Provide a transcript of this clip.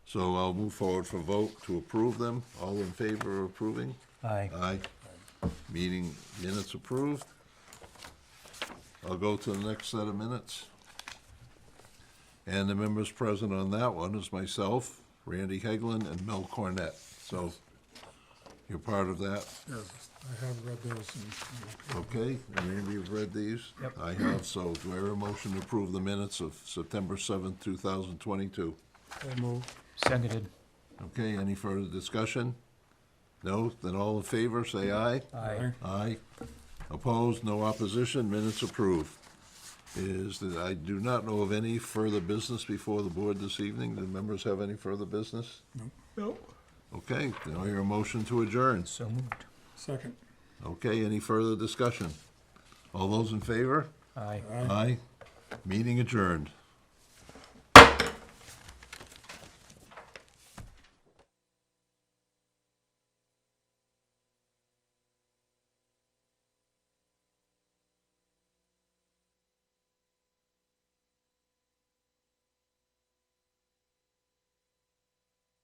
So I'll move forward for vote to approve them. All in favor of approving? Aye. Aye. Meeting minutes approved. I'll go to the next set of minutes. And the members present on that one is myself, Randy Hegland, and Mel Cornett. So you're part of that, Yeah, I have read those and, okay? And Randy, you've read these? Yep. I have, so do I hear a motion to approve the minutes of September seventh, two thousand twenty-two? and move. Seconded. Okay, any further discussion? No? Then all in favor, say aye. Aye. Aye. Opposed, no opposition, minutes approved. Is that I do not know of any further business before the board this evening. Do members have any further business? No. Okay, then I hear a motion to adjourn. So moved. Second. Okay, any further discussion? All those in favor? Aye. Aye. Meeting adjourned.